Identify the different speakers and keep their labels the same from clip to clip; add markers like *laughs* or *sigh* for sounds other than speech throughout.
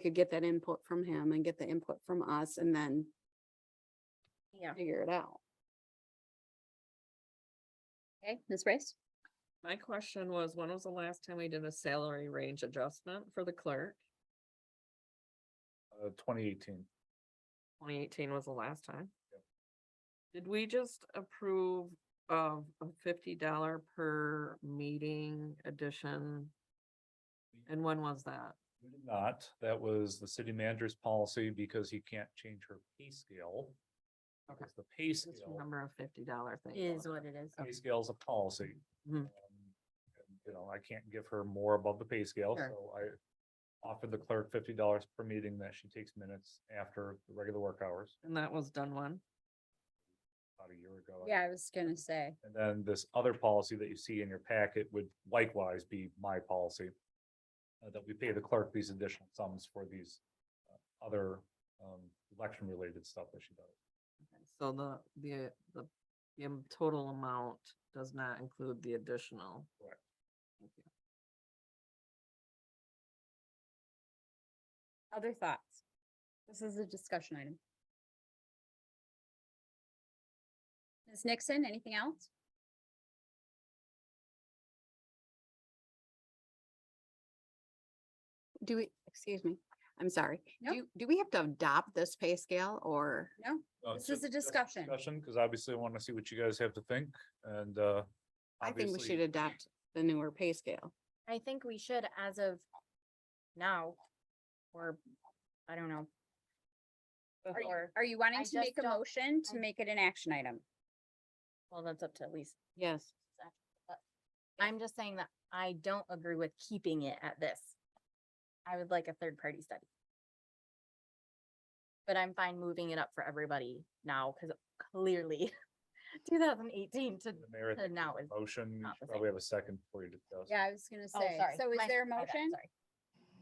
Speaker 1: could get that input from him and get the input from us and then
Speaker 2: Yeah.
Speaker 1: figure it out.
Speaker 2: Okay, Ms. Race?
Speaker 3: My question was, when was the last time we did a salary range adjustment for the clerk?
Speaker 4: Uh, twenty eighteen.
Speaker 3: Twenty eighteen was the last time.
Speaker 4: Yep.
Speaker 3: Did we just approve of a fifty dollar per meeting addition? And when was that?
Speaker 4: We did Not, that was the city manager's policy because he can't change her pay scale.
Speaker 3: Okay.
Speaker 4: Because the pay
Speaker 3: Just
Speaker 4: scale,
Speaker 3: remember a fifty dollar thing.
Speaker 2: Is
Speaker 3: going
Speaker 2: what it is.
Speaker 4: pay scale is a policy.
Speaker 3: Mhm.
Speaker 4: Um, and, You know, I can't give her more above the pay scale,
Speaker 3: Sure.
Speaker 4: so I offered the clerk fifty dollars per meeting that she takes minutes after the regular work hours,
Speaker 3: on. And that was done when?
Speaker 4: about a year ago. I
Speaker 2: Yeah, I was gonna say,
Speaker 4: And then this other policy that you see in your packet would likewise be my policy. uh, that we pay the clerk these additional sums for these uh, other um election related stuff that she does.
Speaker 3: So the, the, the, the am- total amount does not include the additional.
Speaker 4: Correct.
Speaker 3: Thank you.
Speaker 2: other thoughts? This is a discussion item. Ms. Nixon, anything else?
Speaker 1: Do we, excuse me, I'm sorry.
Speaker 2: No.
Speaker 1: Do, do we have to adopt this pay scale or?
Speaker 2: No?
Speaker 4: Uh,
Speaker 2: This
Speaker 4: so
Speaker 2: is a
Speaker 4: just
Speaker 2: discussion.
Speaker 4: Discussion, because obviously I want to see what you guys have to think and uh.
Speaker 1: I think we
Speaker 4: obviously-
Speaker 1: should adopt the newer pay scale.
Speaker 5: I think we should as of now, or I don't know.
Speaker 2: Are you-
Speaker 5: Before,
Speaker 2: Are you wanting
Speaker 5: I
Speaker 2: to make
Speaker 5: just
Speaker 2: a
Speaker 5: don't-
Speaker 2: motion to
Speaker 5: I-
Speaker 2: make it an action item?
Speaker 5: well, that's up to Lisa.
Speaker 1: Yes.
Speaker 5: I'm just saying that I don't agree with keeping it at this. I would like a third party study. But I'm fine moving it up for everybody now, because clearly *laughs* two thousand eighteen to,
Speaker 4: The mayor, I
Speaker 5: to
Speaker 4: think,
Speaker 5: now
Speaker 4: there's
Speaker 5: is.
Speaker 4: a Motion, you
Speaker 5: not the
Speaker 4: should probably have a second before you discuss.
Speaker 2: Yeah, I was gonna
Speaker 5: oh,
Speaker 2: say,
Speaker 5: sorry,
Speaker 2: so is
Speaker 5: my-
Speaker 2: there a
Speaker 5: my bad,
Speaker 2: motion
Speaker 5: sorry.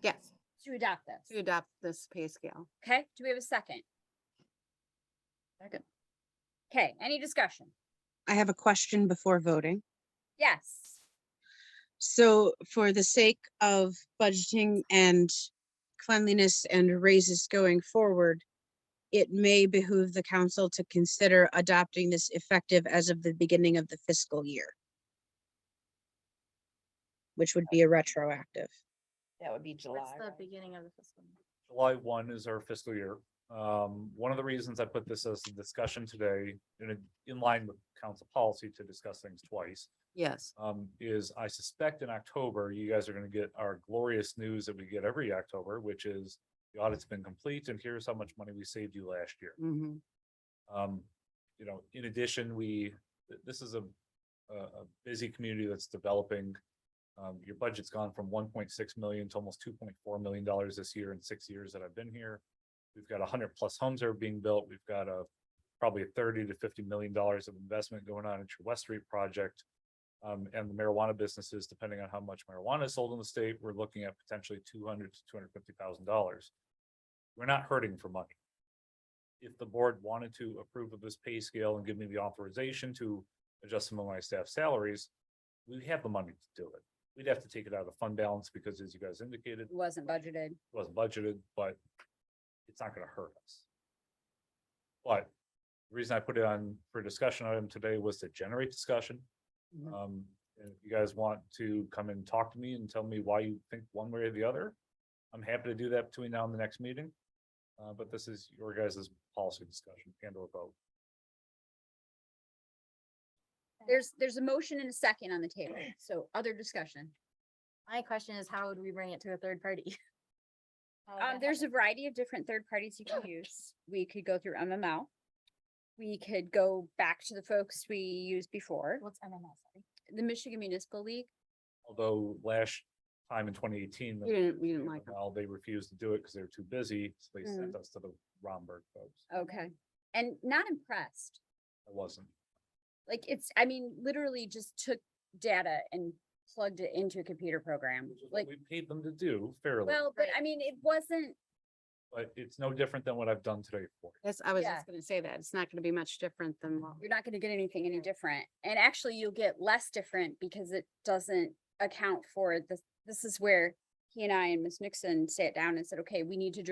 Speaker 1: Yes,
Speaker 2: to adopt
Speaker 1: to
Speaker 2: this?
Speaker 1: adopt this pay scale.
Speaker 2: Okay, do we have a second? Second. Okay, any discussion?
Speaker 6: I have a question before voting.
Speaker 2: Yes,
Speaker 6: So for the sake of budgeting and cleanliness and raises going forward, it may behoove the council to consider adopting this effective as of the beginning of the fiscal year, which would be a retroactive.
Speaker 7: That would be
Speaker 5: What's
Speaker 7: July.
Speaker 5: the
Speaker 7: right?
Speaker 5: beginning of the fiscal? year?
Speaker 4: July one is our fiscal year. Um, one of the reasons I put this as a discussion today, in, a- in line with council policy to discuss things twice.
Speaker 1: Yes.
Speaker 4: Um, is I suspect in October, you guys are gonna get our glorious news that we get every October, which is the audit's been complete and here's how much money we saved you last year.
Speaker 1: hmm
Speaker 4: Um, you know, in addition, we, th- this is a, a, a busy community that's developing. Um, your budget's gone from one point six million to almost two point four million dollars this year in six years that I've been here. We've got hundred plus homes that are being built. We've got a, probably thirty to fifty million dollars of investment going on into West Street project. Um, and the marijuana businesses, depending on how much marijuana is sold in the state, we're looking at potentially two hundred to two hundred fifty thousand dollars. We're not hurting for money if the board wanted to approve of this pay scale and give me the authorization to adjust some of my staff salaries, we have the money to do it. We'd have to take it out of the fund balance because as you guys indicated,
Speaker 2: it wasn't budgeted.
Speaker 4: it wasn't budgeted, but it's not gonna hurt us. But the reason I put it on for discussion item today was to generate discussion.
Speaker 1: Mhm.
Speaker 4: Um, and if you guys want to come and talk to me and tell me why you think one way or the other, I'm happy to do that between now and the next meeting. Uh, but this is your guys' policy discussion and or vote.
Speaker 2: There's, there's a motion and a second on the table, so other discussion.
Speaker 5: My question is, how would we bring it to a third party? *laughs* How would
Speaker 2: Um,
Speaker 5: that
Speaker 2: there's a
Speaker 5: happen?
Speaker 2: variety of different third parties you can use. We could go through MML. We could go back to the folks we used before,
Speaker 5: What's MML, sorry?
Speaker 2: the Michigan Municipal League.
Speaker 4: Although last time in twenty eighteen.
Speaker 1: We didn't, we didn't like them. Mm.
Speaker 4: Well, they refused to do it because they were too busy, so they sent us to the Romberg folks.
Speaker 5: Mm-hmm.
Speaker 2: Okay. And not impressed.
Speaker 4: I wasn't.
Speaker 2: Like it's, I mean, literally just took data and plugged it into a computer program.
Speaker 4: which is what
Speaker 2: Like,
Speaker 4: we paid them to do fairly,
Speaker 2: well, but
Speaker 5: Right.
Speaker 2: I mean, it wasn't,
Speaker 4: but it's no different than what I've done today for. you.
Speaker 1: That's, I was
Speaker 2: Yeah.
Speaker 1: just gonna say that. It's not gonna be much different than what.
Speaker 2: you're not gonna get anything any different. And actually you'll get less different because it doesn't account for this. This is where he and I and Ms. Nixon sat down and said, okay, we need to